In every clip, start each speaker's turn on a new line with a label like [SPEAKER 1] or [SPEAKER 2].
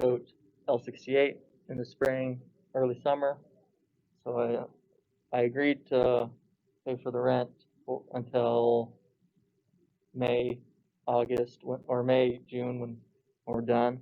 [SPEAKER 1] goat L68 in the spring, early summer. So I, I agreed to pay for the rent o- until May, August, when- or May, June when we're done.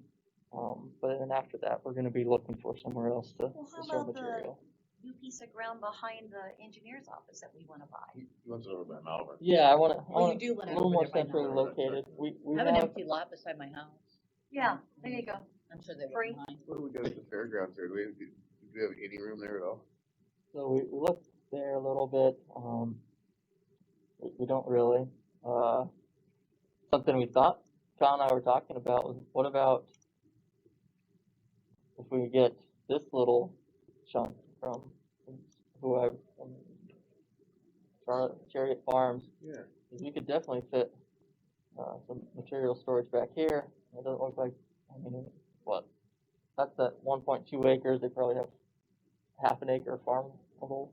[SPEAKER 1] Um, but then after that, we're gonna be looking for somewhere else to,
[SPEAKER 2] Well,
[SPEAKER 1] to
[SPEAKER 2] how
[SPEAKER 1] store
[SPEAKER 2] about the-
[SPEAKER 1] material.
[SPEAKER 2] new piece of ground behind the engineer's office that we wanna buy.
[SPEAKER 3] He lives over by Malvern.
[SPEAKER 1] Yeah, I wanna, I
[SPEAKER 4] Well, you
[SPEAKER 1] wanna,
[SPEAKER 4] do
[SPEAKER 1] a
[SPEAKER 4] want to.
[SPEAKER 1] little more centrally
[SPEAKER 3] now.
[SPEAKER 1] located. We, we
[SPEAKER 4] I have an
[SPEAKER 1] have,
[SPEAKER 4] empty lot beside my house.
[SPEAKER 2] Yeah, there you go.
[SPEAKER 4] I'm sure they
[SPEAKER 2] Free.
[SPEAKER 4] wouldn't mind.
[SPEAKER 3] What do we got at the fairgrounds here? Do we, do we have any room there at all?
[SPEAKER 1] so we we looked there a little bit, um, we, we don't really. Uh, something we thought, John and I were talking about was, what about if we could get this little chunk from whoever, from Charlotte Chariot Farms,
[SPEAKER 3] Yeah.
[SPEAKER 1] is we could definitely fit uh, some material storage back here. It doesn't look like, I mean, what? That's that one point two acres, they probably have half an acre farmable.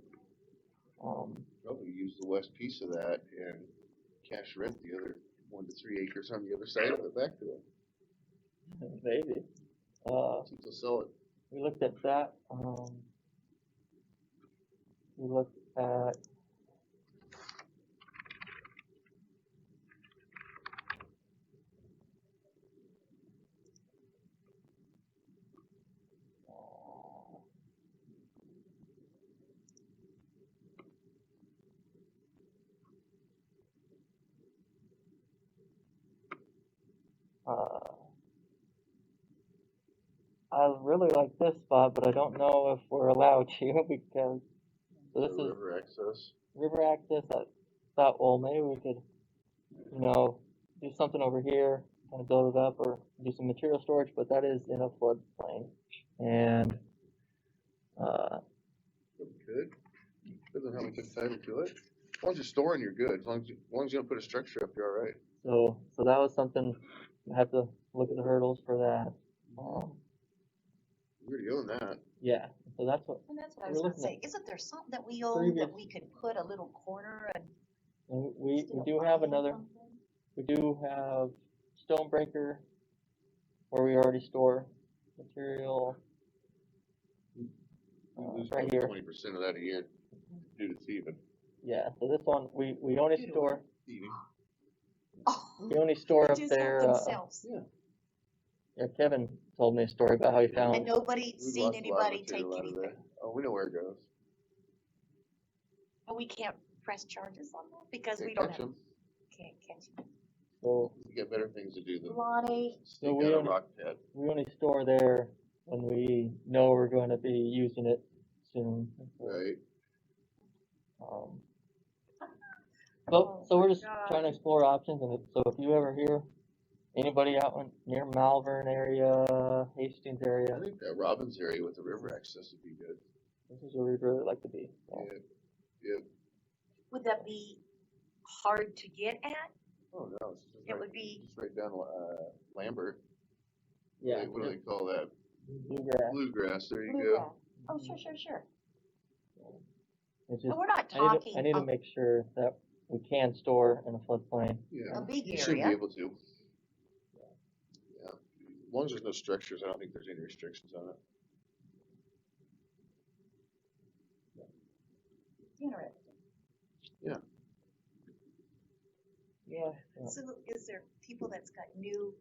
[SPEAKER 1] Um,
[SPEAKER 3] Probably use the west piece of that and cash rent the other one to three acres on the other side of it back to them.
[SPEAKER 1] maybe. Uh,
[SPEAKER 3] See if they'll sell it.
[SPEAKER 1] we looked at that, um, we looked at. Uh, I really like this spot, but I don't know if we're allowed to because so this
[SPEAKER 3] The
[SPEAKER 1] is
[SPEAKER 3] River access.
[SPEAKER 1] river access. I thought, well, maybe we could, you know, do something over here, kind of build it up or do some material storage, but that is in a floodplain. And, uh,
[SPEAKER 3] But we could. Doesn't have much title to it. As long as you're storing your goods, as long as, you- as long as you don't put a structure up, you're all right.
[SPEAKER 1] so, so that was something, I have to look at the hurdles for that. Um,
[SPEAKER 3] You already own that.
[SPEAKER 1] yeah, so that's what,
[SPEAKER 2] And that's what I
[SPEAKER 1] We're
[SPEAKER 2] was gonna
[SPEAKER 1] looking at
[SPEAKER 2] say, isn't there something that we own that
[SPEAKER 1] previous-
[SPEAKER 2] we could put a little corner and?
[SPEAKER 1] and we,
[SPEAKER 2] still
[SPEAKER 1] we do have
[SPEAKER 2] buy
[SPEAKER 1] another,
[SPEAKER 2] something?
[SPEAKER 1] we do have Stonebreaker where we already store material. Uh,
[SPEAKER 3] You lose
[SPEAKER 1] right here,
[SPEAKER 3] Twenty percent of that a year due to thieving.
[SPEAKER 1] yeah, so this one, we, we only
[SPEAKER 4] Due to
[SPEAKER 1] store,
[SPEAKER 3] Thieving.
[SPEAKER 2] Oh,
[SPEAKER 1] we only store up
[SPEAKER 2] just
[SPEAKER 1] there,
[SPEAKER 2] help
[SPEAKER 1] uh,
[SPEAKER 2] themselves.
[SPEAKER 1] yeah, Kevin told me a story about how he
[SPEAKER 2] And
[SPEAKER 1] found,
[SPEAKER 2] nobody
[SPEAKER 3] We've
[SPEAKER 2] seen
[SPEAKER 3] lost a lot of
[SPEAKER 2] anybody take
[SPEAKER 3] material out of
[SPEAKER 2] anything,
[SPEAKER 3] there. Oh, we know where it goes.
[SPEAKER 2] but we can't press charges on that because
[SPEAKER 3] Can't
[SPEAKER 2] we don't
[SPEAKER 3] catch
[SPEAKER 2] have,
[SPEAKER 3] 'em.
[SPEAKER 2] can't catch.
[SPEAKER 1] so
[SPEAKER 3] You got better things to do than
[SPEAKER 2] Lonnie,
[SPEAKER 3] sneak
[SPEAKER 1] we
[SPEAKER 3] out a
[SPEAKER 1] own-
[SPEAKER 3] rock pit.
[SPEAKER 1] we only store there when we know we're gonna be using it soon. and so,
[SPEAKER 3] Right.
[SPEAKER 1] um,
[SPEAKER 2] Oh
[SPEAKER 1] So, so we're
[SPEAKER 2] my
[SPEAKER 1] just trying to explore options and if- so if you ever hear anybody out in, near Malvern area, Hastings
[SPEAKER 3] I
[SPEAKER 1] area,
[SPEAKER 3] think that Robbins area with the river access would be good.
[SPEAKER 1] this is where we'd really like to be. so.
[SPEAKER 3] Yeah. Yeah.
[SPEAKER 2] would that be hard to get at?
[SPEAKER 3] Oh, no, it's just
[SPEAKER 2] It
[SPEAKER 3] right,
[SPEAKER 2] would be,
[SPEAKER 3] just right down, uh, Lambert.
[SPEAKER 1] Yeah.
[SPEAKER 3] Like, What do they call that?
[SPEAKER 1] Bluegrass.
[SPEAKER 3] Bluegrass, there you
[SPEAKER 2] yeah,
[SPEAKER 3] go.
[SPEAKER 2] oh, sure, Oh, sure, sure,
[SPEAKER 1] It's
[SPEAKER 2] and
[SPEAKER 1] just,
[SPEAKER 2] we're not
[SPEAKER 1] I need,
[SPEAKER 2] talking
[SPEAKER 1] to- I need to
[SPEAKER 2] a-
[SPEAKER 1] make sure that we can store in a floodplain.
[SPEAKER 3] Yeah.
[SPEAKER 2] a big
[SPEAKER 3] You should be
[SPEAKER 2] area,
[SPEAKER 3] able to. Yeah. As long as there's no structures, I don't think there's any restrictions on it.
[SPEAKER 2] interesting.
[SPEAKER 1] Yeah.
[SPEAKER 2] So is there people that's got new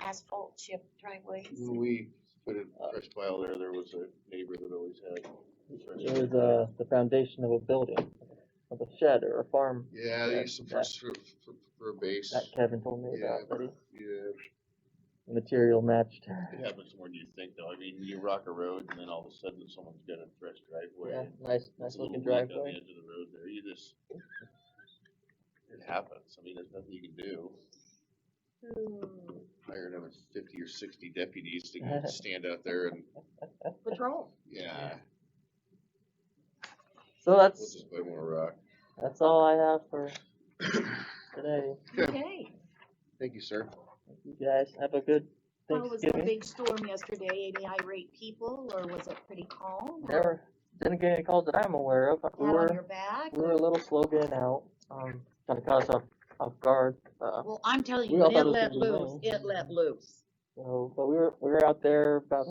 [SPEAKER 2] asphalt chip driveways?
[SPEAKER 3] When we put in
[SPEAKER 1] Uh,
[SPEAKER 3] fresh tile there, there was a neighbor that always had. fresh
[SPEAKER 1] It was,
[SPEAKER 3] tile.
[SPEAKER 1] uh, the foundation of a building, of a shed or a farm
[SPEAKER 3] Yeah, they
[SPEAKER 1] yeah,
[SPEAKER 3] used them for,
[SPEAKER 1] that-
[SPEAKER 3] s- for, for, for a base.
[SPEAKER 1] that Kevin told me
[SPEAKER 3] Yeah,
[SPEAKER 1] about, that he-
[SPEAKER 3] yeah.
[SPEAKER 1] the material matched.
[SPEAKER 3] It happens more than you think, though. I mean, you rock a road, and then all of a sudden, someone's got a fresh
[SPEAKER 1] Yeah,
[SPEAKER 3] driveway.
[SPEAKER 1] nice,
[SPEAKER 3] It's
[SPEAKER 1] nice
[SPEAKER 3] a little
[SPEAKER 1] looking
[SPEAKER 3] weak on
[SPEAKER 1] driveway.
[SPEAKER 3] The edge of the road there, you just, it happens. I mean, there's nothing you can do.
[SPEAKER 1] Hmm.
[SPEAKER 3] Hire another fifty or sixty deputies to go stand out there and,
[SPEAKER 4] Patrol.
[SPEAKER 3] yeah,
[SPEAKER 1] So
[SPEAKER 3] we'll
[SPEAKER 1] that's,
[SPEAKER 3] just play more rock.
[SPEAKER 1] that's all I have for today.
[SPEAKER 4] Okay.
[SPEAKER 3] Thank you, sir.
[SPEAKER 1] You guys have a good
[SPEAKER 4] How was the
[SPEAKER 1] Thanksgiving.
[SPEAKER 4] big storm yesterday? Any irate people or was it pretty calm?
[SPEAKER 1] Never, didn't get any calls that I'm aware of. We
[SPEAKER 4] Pat on
[SPEAKER 1] were,
[SPEAKER 4] your back?
[SPEAKER 1] we were a little slow getting out, um, kind of caught us off, off guard, uh,
[SPEAKER 4] Well, I'm telling
[SPEAKER 1] We
[SPEAKER 4] you,
[SPEAKER 1] all
[SPEAKER 4] when
[SPEAKER 1] thought it
[SPEAKER 4] it
[SPEAKER 1] was
[SPEAKER 4] let
[SPEAKER 1] gonna be
[SPEAKER 4] loose,
[SPEAKER 1] rain.
[SPEAKER 4] it let loose.
[SPEAKER 1] So, but we were, we were out there about